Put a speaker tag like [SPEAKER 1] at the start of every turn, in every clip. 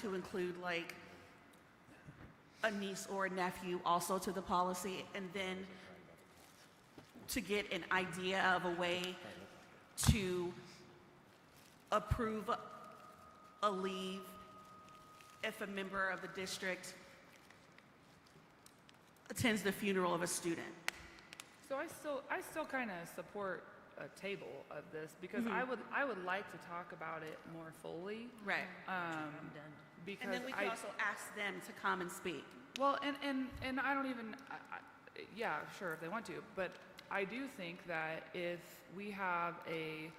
[SPEAKER 1] to include like a niece or a nephew also to the policy, and then to get an idea of a way to approve a leave if a member of the district attends the funeral of a student.
[SPEAKER 2] So I still, I still kind of support a table of this because I would, I would like to talk about it more fully.
[SPEAKER 1] Right.
[SPEAKER 2] Um,
[SPEAKER 1] And
[SPEAKER 2] because
[SPEAKER 1] then we can
[SPEAKER 2] I,
[SPEAKER 1] also ask them to come and speak.
[SPEAKER 2] well, and, and, and I don't even, I- I- yeah, sure, if they want to, but I do think that if we have a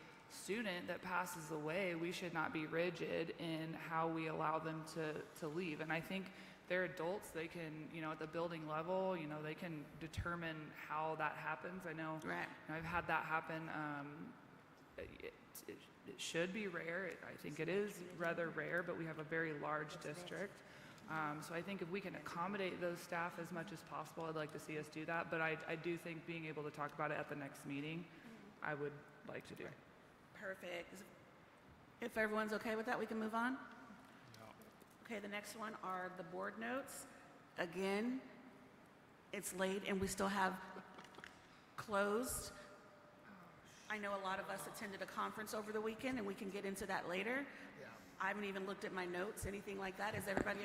[SPEAKER 2] student that passes away, we should not be rigid in how we allow them to, to leave. And I think they're adults, they can, you know, at the building level, you know, they can determine how that happens. I know
[SPEAKER 1] Right.
[SPEAKER 2] And I've had that happen. Um, it, it, it should be rare. It, I think it is rather rare, but we have a very large district. Um, so I think if we can accommodate those staff as much as possible, I'd like to see us do that. But I, I do think being able to talk about it at the next meeting, I would like to do.
[SPEAKER 1] Perfect. Is- If everyone's okay with that, we can move on? Okay, the next one are the board notes. Again, it's late and we still have closed. I know a lot of us attended a conference over the weekend and we can get into that later. I haven't even looked at my notes, anything like that. Is everybody,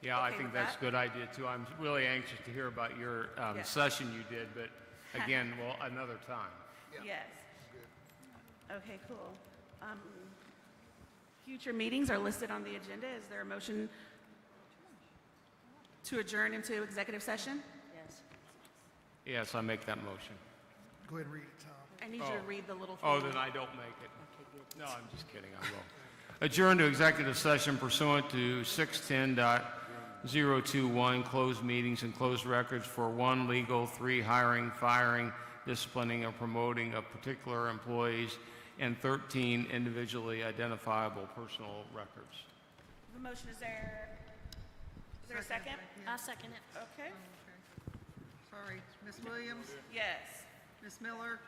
[SPEAKER 3] Yeah, I
[SPEAKER 1] okay
[SPEAKER 3] think
[SPEAKER 1] with
[SPEAKER 3] that's
[SPEAKER 1] that?
[SPEAKER 3] a good idea too. I'm really anxious to hear about your um,
[SPEAKER 1] Yeah.
[SPEAKER 3] session you did, but again, well, another time.
[SPEAKER 1] yes? Okay, cool. Um, Future meetings are listed on the agenda. Is there a motion to adjourn into executive session?
[SPEAKER 3] Yes, I make that motion.
[SPEAKER 4] Go ahead and read it, Tom.
[SPEAKER 1] I need you to read the little.
[SPEAKER 3] Oh,
[SPEAKER 1] thing.
[SPEAKER 3] then I don't make it. No, I'm just kidding, I will. Adjourn to executive session pursuant to 610.021, closed meetings and closed records for one, legal, three, hiring, firing, disciplining, or promoting of particular employees, and 13, individually identifiable personal records.
[SPEAKER 1] The motion is there. Is there a second?
[SPEAKER 5] I'll second it.
[SPEAKER 1] Okay.
[SPEAKER 6] Sorry, Ms. Williams,
[SPEAKER 1] Yes.
[SPEAKER 6] Ms. Miller?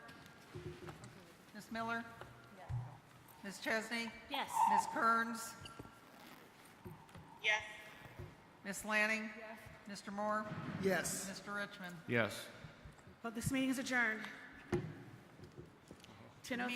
[SPEAKER 6] Ms. Miller? Ms. Chesney?
[SPEAKER 5] Yes.
[SPEAKER 6] Ms. Kearns?
[SPEAKER 1] Yes.
[SPEAKER 6] Ms. Lanning? Mr. Moore?
[SPEAKER 4] Yes.
[SPEAKER 6] Mr. Richmond?
[SPEAKER 3] Yes.
[SPEAKER 1] Well, this meeting is adjourned. Ten oh